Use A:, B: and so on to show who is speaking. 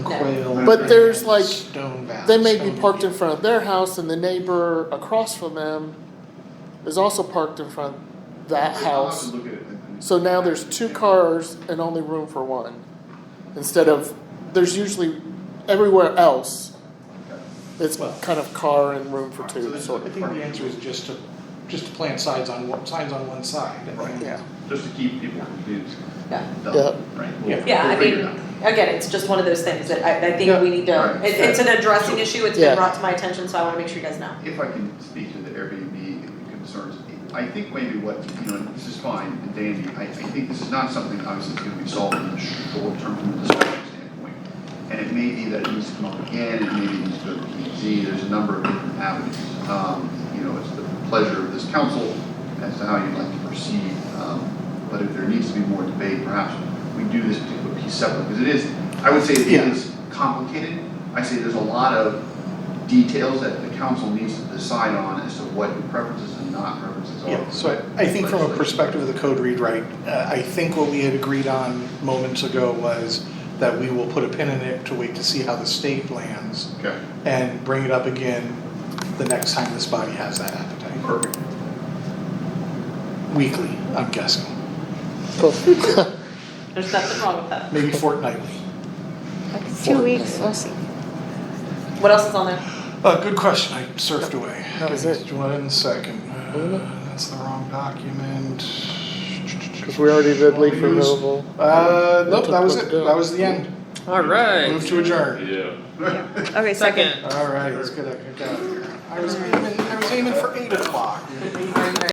A: No.
B: quail.
C: But there's, like,
B: stone bass,
C: They may be
B: stone-
C: parked in front of their house and the neighbor across from them is also parked in front of that house. So now there's two cars and only room for one. Instead of, there's usually everywhere else, it's kind of car and room for two, sort
B: I
C: of.
B: think the answer is just to, just to plant signs on, one- signs on one side.
D: Right.
C: Yeah,
D: Just to keep people confused.
A: Yeah.
C: Yeah.
D: Right?
B: Yeah.
D: We'll-
A: Yeah, I
D: we'll figure it
A: mean,
D: out.
A: again, it's just one of those things that I, I
B: Yeah.
A: think we need to,
D: Right.
A: it, it's an addressing
D: Yeah.
A: issue, it's
C: Yeah.
A: been brought to my attention, so I wanna make sure you guys know.
D: If I can speak to the Airbnb concerns, I think maybe what, you know, this is fine and dandy, I, I think this is not something obviously that's gonna be solved in the short term from a discussion standpoint. And it may be that it needs to come up again, it may be it needs to go to PZ, there's a number of different avenues. Um, you know, it's the pleasure of this council as to how you'd like to proceed, um, but if there needs to be more debate, perhaps we do this particular piece separate, because it is, I would say it
B: Yeah.
D: is complicated. I say there's a lot of details that the council needs to decide on as to what preferences and not preferences are.
B: Yeah, so I, I think from a perspective of the code rewrite, uh, I think what we had agreed on moments ago was that we will put a pin in it to wait to see how the state lands
D: Okay,
B: and bring it up again the next time this body has that appetite.
D: perfect.
B: Weekly, I'm guessing,
C: cool.
A: There's nothing wrong with that.
B: maybe fortnightly.
E: Like two weeks, we'll see.
A: What else is on there?
B: Uh, good question, I surfed away.
C: That was it.
B: Just One second, Uh, that's the wrong document.
C: Cause we already did leaf removal.
B: Uh, nope, that was it, that was the end,
F: All right.
B: move to adjourn.
G: Yeah.
E: Okay, second.
F: Second.
B: All right, let's get out of here. I was aiming, I was aiming for eight o'clock.